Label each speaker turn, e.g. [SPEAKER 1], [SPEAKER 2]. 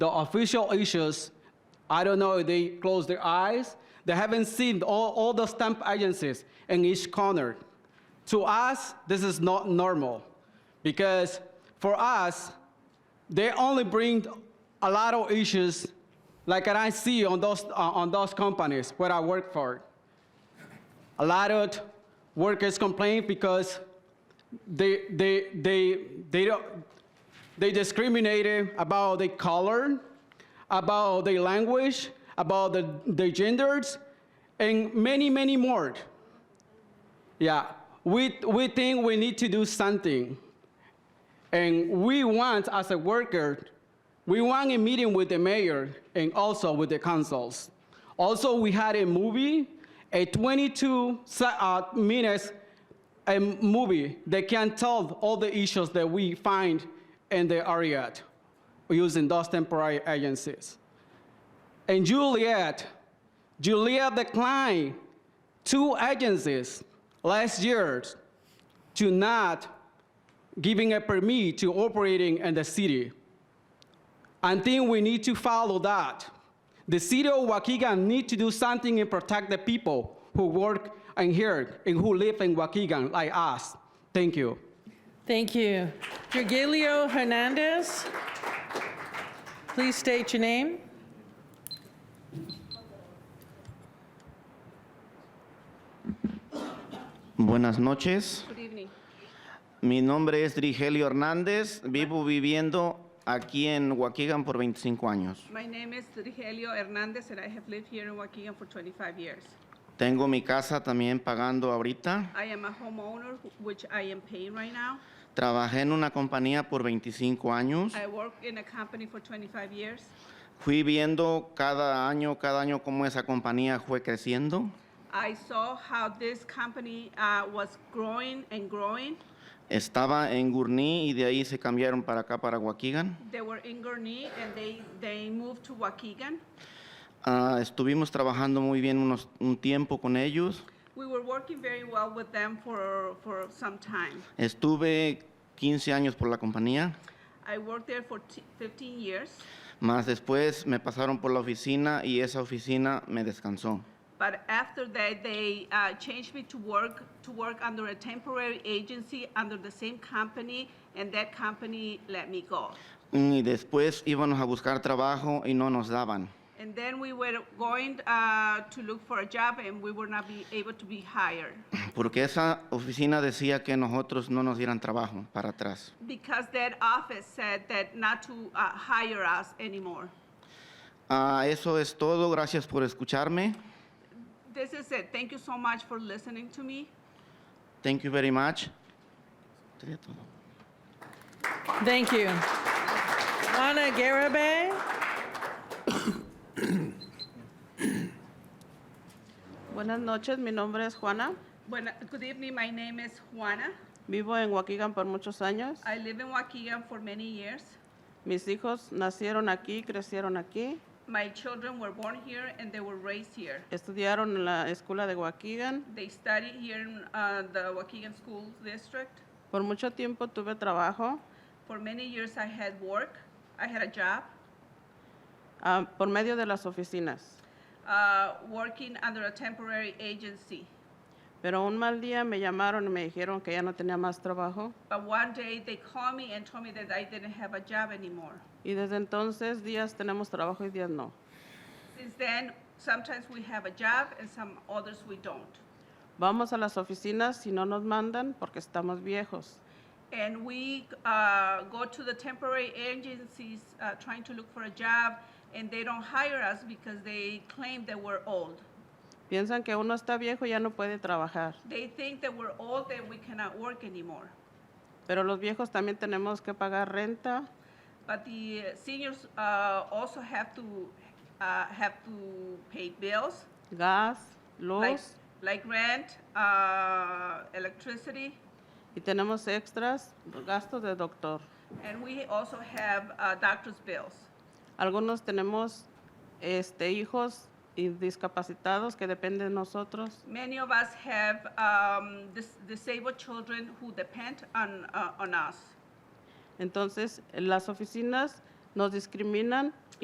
[SPEAKER 1] The official issues, I don't know if they close their eyes. They haven't seen all, all the stamp agencies in each corner. To us, this is not normal because for us, they only bring a lot of issues like that I see on those, uh, on those companies where I work for. A lot of workers complain because they, they, they, they, don't, they discriminated about the color, about the language, about the, the genders, and many, many more. Yeah, we, we think we need to do something. And we want, as a worker, we want a meeting with the mayor and also with the councils. Also, we had a movie, a 22 se- uh, minutes a movie that can tell all the issues that we find in the area using those temporary agencies. And Juliet, Juliet declined two agencies last year to not giving a permit to operating in the city. I think we need to follow that. The city of Waukegan need to do something and protect the people who work and here and who live in Waukegan like us. Thank you.
[SPEAKER 2] Thank you. Virgilio Hernandez, please state your name.
[SPEAKER 3] Buenas noches.
[SPEAKER 4] Good evening.
[SPEAKER 3] Mi nombre es Rigelio Hernández. Vivo viviendo aquí en Waukegan por 25 años.
[SPEAKER 4] My name is Rigelio Hernandez, and I have lived here in Waukegan for 25 years.
[SPEAKER 3] Tengo mi casa también pagando ahorita.
[SPEAKER 4] I am a homeowner, wh- which I am paying right now.
[SPEAKER 3] Trabajé en una compañía por 25 años.
[SPEAKER 4] I work in a company for 25 years.
[SPEAKER 3] Fui viendo cada año, cada año cómo esa compañía fue creciendo.
[SPEAKER 4] I saw how this company uh, was growing and growing.
[SPEAKER 3] Estaba en Gurnee y de ahí se cambiaron para acá, para Waukegan.
[SPEAKER 4] They were in Gurnee, and they, they moved to Waukegan.
[SPEAKER 3] Ah, estuvimos trabajando muy bien unos- un tiempo con ellos.
[SPEAKER 4] We were working very well with them for, for some time.
[SPEAKER 3] Estuve 15 años por la compañía.
[SPEAKER 4] I worked there for t- 15 years,
[SPEAKER 3] Más después me pasaron por la oficina y esa oficina me descansó.
[SPEAKER 4] but after that, they uh, changed me to work, to work under a temporary agency under the same company, and that company let me go.
[SPEAKER 3] Y después íbamos a buscar trabajo y no nos daban.
[SPEAKER 4] And then we were going uh, to look for a job, and we were not be able to be hired
[SPEAKER 3] Porque esa oficina decía que nosotros no nos dieran trabajo para atrás.
[SPEAKER 4] because that office said that not to uh, hire us anymore.
[SPEAKER 3] Ah, eso es todo. Gracias por escucharme.
[SPEAKER 4] This is it. Thank you so much for listening to me.
[SPEAKER 3] Thank you very much. Sería todo.
[SPEAKER 2] Thank you. Ana Garabay.
[SPEAKER 5] Buenas noches, mi nombre es Juana.
[SPEAKER 4] Buena- good evening. My name is Juana.
[SPEAKER 5] Vivo en Waukegan por muchos años.
[SPEAKER 4] I live in Waukegan for many years.
[SPEAKER 5] Mis hijos nacieron aquí, crecieron aquí,
[SPEAKER 4] My children were born here and they were raised here.
[SPEAKER 5] estudiaron en la escuela de Waukegan.
[SPEAKER 4] They studied here in uh, the Waukegan School District.
[SPEAKER 5] Por mucho tiempo tuve trabajo.
[SPEAKER 4] For many years, I had work. I had a job
[SPEAKER 5] ah, por medio de las oficinas.
[SPEAKER 4] uh, working under a temporary agency.
[SPEAKER 5] Pero un mal día me llamaron y me dijeron que ya no tenía más trabajo.
[SPEAKER 4] But one day they called me and told me that I didn't have a job anymore.
[SPEAKER 5] Y desde entonces días tenemos trabajo y días no.
[SPEAKER 4] Since then, sometimes we have a job and some others we don't.
[SPEAKER 5] Vamos a las oficinas si no nos mandan porque estamos viejos.
[SPEAKER 4] And we uh, go to the temporary agencies uh, trying to look for a job and they don't hire us because they claim that we're old.
[SPEAKER 5] Piensan que uno está viejo y ya no puede trabajar.
[SPEAKER 4] They think that we're old and we cannot work anymore.
[SPEAKER 5] Pero los viejos también tenemos que pagar renta,
[SPEAKER 4] But the uh, seniors uh, also have to uh, have to pay bills
[SPEAKER 5] gas, luz
[SPEAKER 4] like like rent, uh, electricity,
[SPEAKER 5] y tenemos extras, gastos de doctor.
[SPEAKER 4] and we also have uh, doctor's bills.
[SPEAKER 5] Algunos tenemos este, hijos y discapacitados que dependen de nosotros.
[SPEAKER 4] Many of us have um, dis- disabled children who depend on uh, on us.
[SPEAKER 5] Entonces, las oficinas nos discriminan